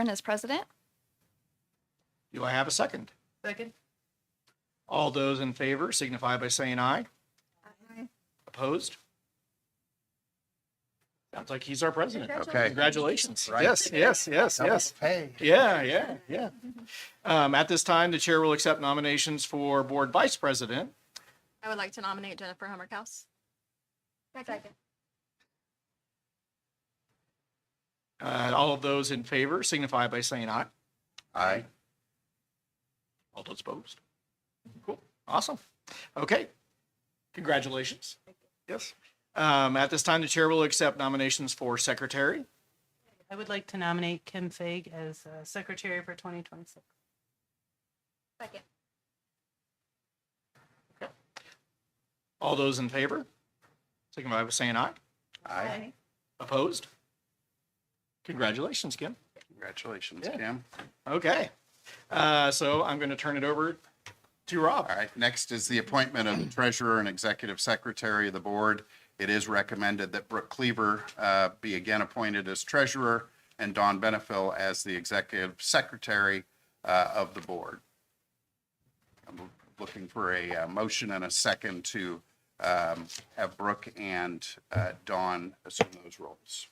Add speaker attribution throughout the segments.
Speaker 1: Aaron as president.
Speaker 2: Do I have a second?
Speaker 3: Second.
Speaker 2: All those in favor signify by saying aye. Opposed? Sounds like he's our president.
Speaker 4: Okay.
Speaker 2: Congratulations.
Speaker 4: Right.
Speaker 2: Yes, yes, yes, yes.
Speaker 4: Hey.
Speaker 2: Yeah, yeah, yeah. Um, at this time, the chair will accept nominations for board vice president.
Speaker 3: I would like to nominate Jennifer Hummerkaus. Second.
Speaker 2: Uh, all of those in favor signify by saying aye.
Speaker 4: Aye.
Speaker 2: All those opposed? Cool. Awesome. Okay. Congratulations. Yes. Um, at this time, the chair will accept nominations for secretary.
Speaker 5: I would like to nominate Kim Fag as uh, secretary for 2026.
Speaker 3: Second.
Speaker 2: All those in favor? Signify by saying aye.
Speaker 4: Aye.
Speaker 2: Opposed? Congratulations, Kim.
Speaker 4: Congratulations,
Speaker 2: Yeah.
Speaker 4: Kim.
Speaker 2: Okay. Uh, so I'm going to turn it over to Rob.
Speaker 4: All right, next is the appointment of the treasurer and executive secretary of the board. It is recommended that Brooke Cleaver uh, be again appointed as treasurer and Don Benefil as the executive secretary uh, of the board. I'm looking for a uh, motion and a second to um, have Brooke and uh, Don assume those roles.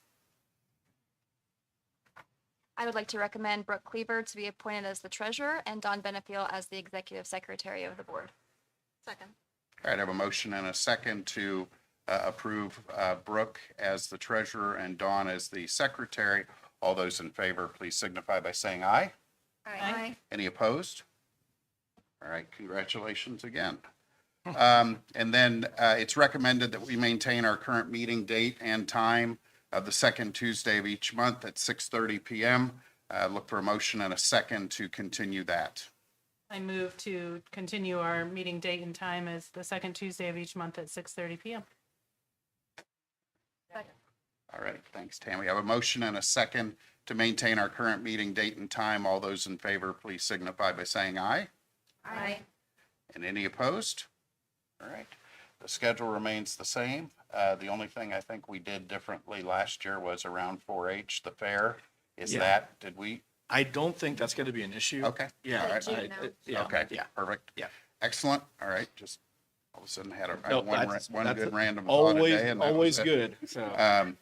Speaker 1: I would like to recommend Brooke Cleaver to be appointed as the treasurer and Don Benefiel as the executive secretary of the board.
Speaker 3: Second.
Speaker 4: All right, I have a motion and a second to uh, approve uh, Brooke as the treasurer and Dawn as the secretary. All those in favor, please signify by saying aye.
Speaker 5: Aye.
Speaker 4: Any opposed? All right, congratulations again. Um, And then uh, it's recommended that we maintain our current meeting date and time of the second Tuesday of each month at 6:30 PM. Uh, Look for a motion and a second to continue that.
Speaker 5: I move to continue our meeting date and time as the second Tuesday of each month at 6:30 PM.
Speaker 4: All right, thanks, Tammy. I have a motion and a second to maintain our current meeting date and time. All those in favor, please signify by saying aye.
Speaker 3: Aye.
Speaker 4: And any opposed? All right, the schedule remains the same. Uh, The only thing I think we did differently last year was around 4H, the fair. Is
Speaker 2: Yeah.
Speaker 4: that, did we?
Speaker 2: I don't think that's going to be an issue.
Speaker 4: Okay,
Speaker 2: Yeah.
Speaker 3: Uh,
Speaker 2: I-
Speaker 3: June
Speaker 2: I-
Speaker 3: now.
Speaker 2: it- yeah,
Speaker 4: okay,
Speaker 2: Yeah.
Speaker 4: perfect.
Speaker 2: Yeah.
Speaker 4: Excellent. All right, just all of a sudden had a- I
Speaker 2: No,
Speaker 4: had one ra-
Speaker 2: that's-
Speaker 4: one
Speaker 2: that's
Speaker 4: good random thought a day.
Speaker 2: Always,
Speaker 4: and that was
Speaker 2: always
Speaker 4: it.
Speaker 2: good. So,
Speaker 4: Um,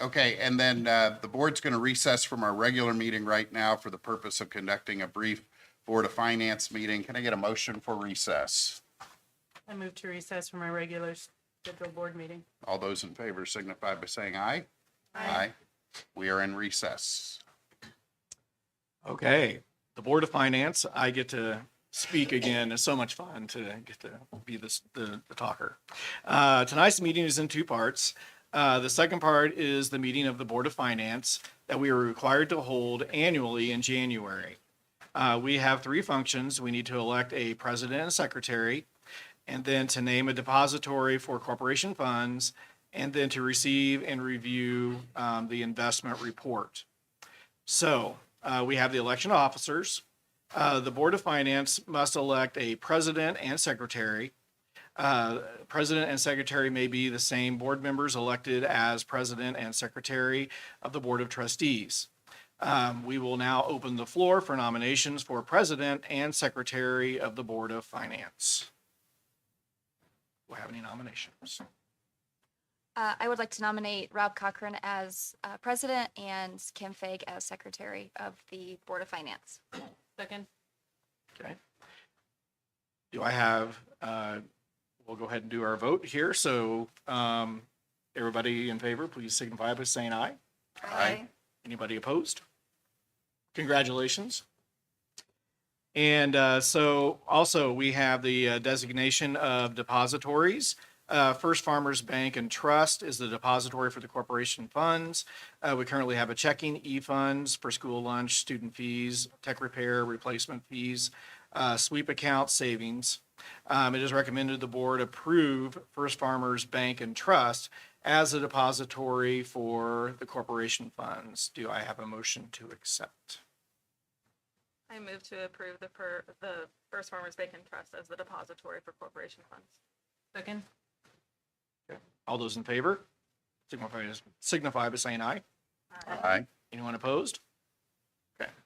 Speaker 4: Okay, and then uh, the board's going to recess from our regular meeting right now for the purpose of conducting a brief Board of Finance meeting. Can I get a motion for recess?
Speaker 5: I move to recess from our regular scheduled board meeting.
Speaker 4: All those in favor signify by saying aye. Aye. We are in recess.
Speaker 2: okay. The Board of Finance, I get to speak again. It's so much fun to get to be this, the, the talker. Uh, tonight's meeting is in two parts. Uh, the second part is the meeting of the Board of Finance that we are required to hold annually in January. Uh, we have three functions. We need to elect a president and secretary, and then to name a depository for corporation funds, and then to receive and review um, the investment report. So uh, we have the election of officers. Uh, the Board of Finance must elect a president and secretary. Uh, President and secretary may be the same board members elected as president and secretary of the Board of Trustees. Um, We will now open the floor for nominations for president and secretary of the Board of Finance. Do I have any nominations?
Speaker 1: Uh, I would like to nominate Rob Cochran as uh, president and Kim Fag as secretary of the board of finance.
Speaker 5: Second.
Speaker 2: Okay. Do I have, uh, we'll go ahead and do our vote here. So um, everybody in favor, please signify by saying aye.
Speaker 4: Aye.
Speaker 2: Anybody opposed? Congratulations. And uh, so also we have the uh, designation of depositories. Uh, First Farmers Bank and Trust is the depository for the corporation funds. Uh, We currently have a checking, e-funds for school lunch, student fees, tech repair, replacement fees, uh, sweep account savings. Um, It is recommended the board approve First Farmers Bank and Trust as a depository for the corporation funds. Do I have a motion to accept?
Speaker 3: I move to approve the per, the First Farmers Bacon Trust as the depository for corporation funds.
Speaker 5: Second.
Speaker 2: All those in favor? signify- Signify by saying aye.
Speaker 4: Aye.
Speaker 2: Anyone opposed? Okay.